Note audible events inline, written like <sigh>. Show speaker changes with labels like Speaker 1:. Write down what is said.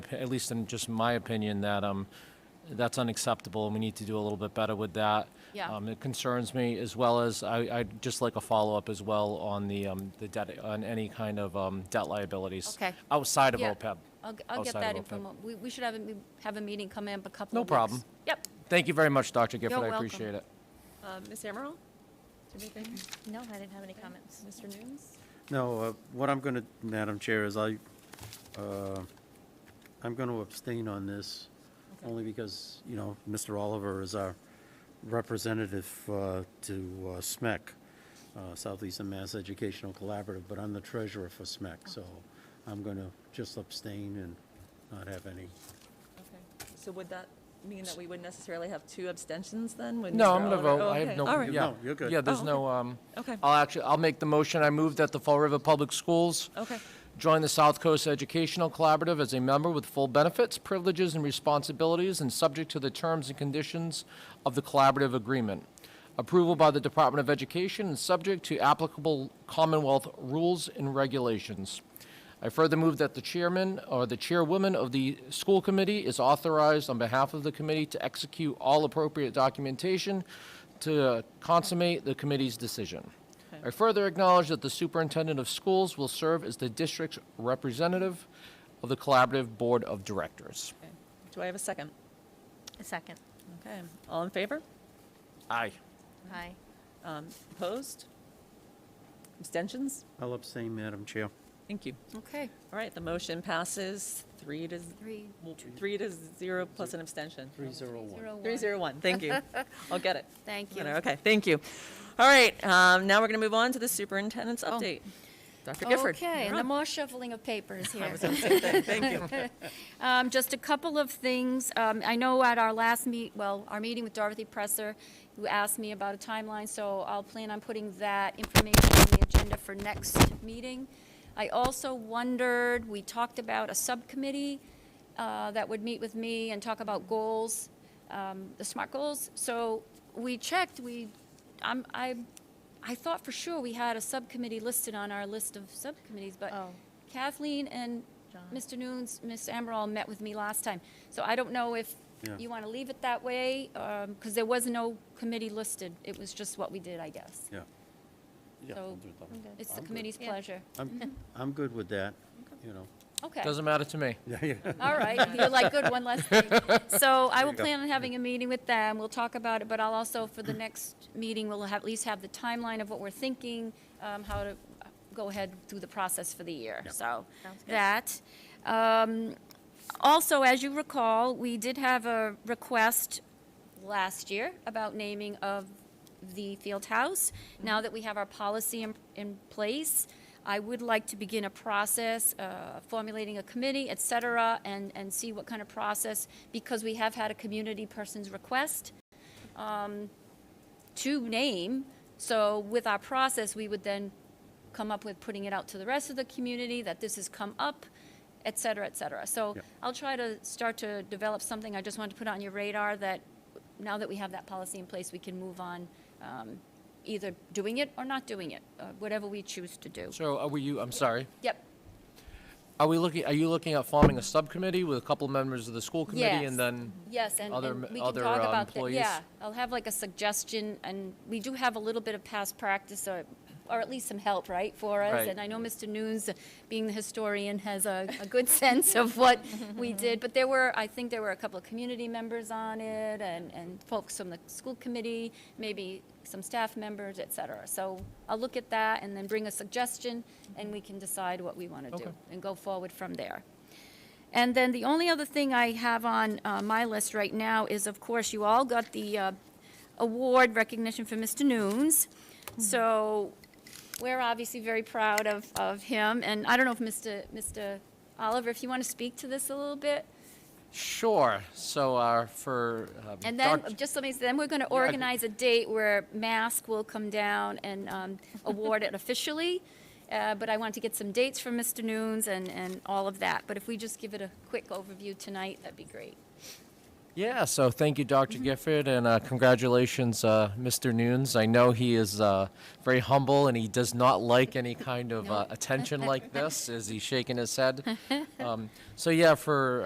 Speaker 1: at least in just my opinion, that um, that's unacceptable, and we need to do a little bit better with that.
Speaker 2: Yeah.
Speaker 1: Um, It concerns me, as well as I, I'd just like a follow-up as well on the, um, the debt, on any kind of um, debt liabilities.
Speaker 2: Okay.
Speaker 1: Outside of
Speaker 2: Yeah.
Speaker 1: OPEB.
Speaker 2: I'll, g- I'll get
Speaker 1: outside of
Speaker 2: that
Speaker 1: OPEB.
Speaker 2: info. We, we should have a, m- have a meeting come in a couple
Speaker 1: No
Speaker 2: of weeks.
Speaker 1: problem.
Speaker 2: Yep.
Speaker 1: Thank you very much, Dr. Gifford,
Speaker 2: You're
Speaker 1: I
Speaker 2: welcome.
Speaker 1: appreciate it.
Speaker 3: Uh, Ms. Amaral? Anything?
Speaker 2: No, I didn't have any comments.
Speaker 3: Mr. Nunes?
Speaker 4: No, uh, what I'm going to, Madam Chair, is I, uh, I'm going to abstain on this,
Speaker 3: Okay.
Speaker 4: only because, you know, Mr. Oliver is our representative uh, to uh, SMEC, uh, Southeastern Mass Educational Collaborative, but I'm the treasurer for SMEC, so I'm going to just abstain and not have any.
Speaker 3: Okay. So would that mean that we wouldn't necessarily have two abstentions then? when
Speaker 1: No,
Speaker 3: Mr.
Speaker 1: I'm gonna
Speaker 3: Oliver-
Speaker 1: vote.
Speaker 3: Oh,
Speaker 1: I have
Speaker 3: okay.
Speaker 1: no.
Speaker 3: All right.
Speaker 1: yeah.
Speaker 4: No, you're good.
Speaker 1: Yeah, there's
Speaker 3: Oh,
Speaker 1: no, um.
Speaker 3: Okay.
Speaker 1: I'll actually, I'll make the motion. I move that the Fall River Public Schools
Speaker 3: Okay.
Speaker 1: join the South Coast Educational Collaborative as a member with full benefits, privileges, and responsibilities, and subject to the terms and conditions of the collaborative agreement. Approval by the Department of Education and subject to applicable Commonwealth rules and regulations. I further move that the chairman or the chairwoman of the school committee is authorized on behalf of the committee to execute all appropriate documentation to consummate the committee's decision. I further acknowledge that the superintendent of schools will serve as the district's representative of the collaborative board of directors.
Speaker 3: Okay. Do I have a second?
Speaker 2: A second.
Speaker 3: Okay. All in favor?
Speaker 1: Aye.
Speaker 2: Aye.
Speaker 3: Um, Opposed? Abstentions?
Speaker 4: I'll abstain, Madam Chair.
Speaker 3: Thank you.
Speaker 2: Okay.
Speaker 3: All right, the motion passes three to,
Speaker 2: Three,
Speaker 3: well, three to zero plus an abstention.
Speaker 4: Three zero one.
Speaker 2: zero, one.
Speaker 3: Three zero one, thank
Speaker 1: <laughs>
Speaker 3: you. I'll get it.
Speaker 2: Thank you.
Speaker 3: Okay, thank you. All right, um, now we're going to move on to the superintendent's
Speaker 1: Oh.
Speaker 3: update. Dr. Gifford.
Speaker 2: Okay,
Speaker 3: you're
Speaker 2: and the
Speaker 3: up.
Speaker 2: more shuffling of
Speaker 3: <laughs>
Speaker 2: papers here.
Speaker 3: Thank you.
Speaker 2: <laughs> Um, Just a couple of things. Um, I know at our last meet, well, our meeting with Dorothy Presser, who asked me about a timeline, so I'll plan on putting that information on the agenda for next meeting. I also wondered, we talked about a subcommittee uh, that would meet with me and talk about goals, um, the SMART goals. So we checked, we, I'm, I, I thought for sure we had a subcommittee listed on our list of subcommittees, but
Speaker 5: Oh.
Speaker 2: Kathleen and Mr. Nunes, Ms. Amaral met with me last time. So I don't know if
Speaker 4: Yeah.
Speaker 2: you want to leave it that way, because there was no committee listed. It was just what we did, I guess.
Speaker 4: Yeah. Yeah,
Speaker 2: So,
Speaker 4: I'll do that.
Speaker 2: Okay. It's the
Speaker 4: I'm good.
Speaker 2: committee's
Speaker 5: Yeah.
Speaker 2: pleasure.
Speaker 4: <laughs> I'm, I'm good with that, you know.
Speaker 2: Okay.
Speaker 1: Doesn't matter to me.
Speaker 4: Yeah, yeah.
Speaker 2: All right, you're like, good, one less thing.
Speaker 4: <laughs>
Speaker 2: So I will
Speaker 4: you go.
Speaker 2: plan on having a meeting with them, we'll talk about it, but I'll also, for the next meeting, we'll have, at least have the timeline of what we're thinking, um, how to go ahead through the process for the year, so. That. Um, Also, as you recall, we did have a request last year about naming of the field house. Now that we have our policy in, in place, I would like to begin a process, uh, formulating a committee, et cetera, and, and see what kind of process, because we have had a community person's request um, to name. So with our process, we would then come up with putting it out to the rest of the community that this has come up, et cetera, et cetera. So
Speaker 4: Yep.
Speaker 2: I'll try to start to develop something. I just wanted to put on your radar that now that we have that policy in place, we can move on um, either doing it or not doing it, uh, whatever we choose to do.
Speaker 1: So are we, you, I'm sorry.
Speaker 2: Yep.
Speaker 1: Are we looking, are you looking at forming a subcommittee with a couple members of the school committee?
Speaker 2: Yes.
Speaker 1: And then,
Speaker 2: Yes, and,
Speaker 1: Other
Speaker 2: and
Speaker 1: m-
Speaker 2: we can
Speaker 1: other,
Speaker 2: talk
Speaker 1: uh,
Speaker 2: about that.
Speaker 1: employees?
Speaker 2: Yeah, I'll have like a suggestion, and we do have a little bit of past practice, or, or at least some help, right, for us?
Speaker 1: Right.
Speaker 2: And I know Mr. Nunes, being the historian, has a, a good <laughs> sense of what we did. But there were, I think there were a couple of community members on it, and, and folks from the school committee, maybe some staff members, et cetera. So I'll look at that and then bring a suggestion, and we can decide what we want to do
Speaker 1: Okay.
Speaker 2: and go forward from there. And then the only other thing I have on uh, my list right now is, of course, you all got the uh, award recognition for Mr. Nunes. So we're obviously very proud of, of him. And I don't know if Mr. Mr. Oliver, if you want to speak to this a little bit?
Speaker 1: sure, so uh, for. um,
Speaker 2: And then,
Speaker 1: Doc-
Speaker 2: just let me, then we're going to organize a date where Mask will come down and um, award it <laughs> officially. Uh, But I want to get some dates from Mr. Nunes and, and all of that. But if we just give it a quick overview tonight, that'd be great.
Speaker 1: Yeah, so thank you, Dr. Gifford, and uh, congratulations, uh, Mr. Nunes. I know he is uh, very humble and he does not like any kind of uh,
Speaker 2: Nope.
Speaker 1: attention like this. Is he shaking his head? um, so, yeah, for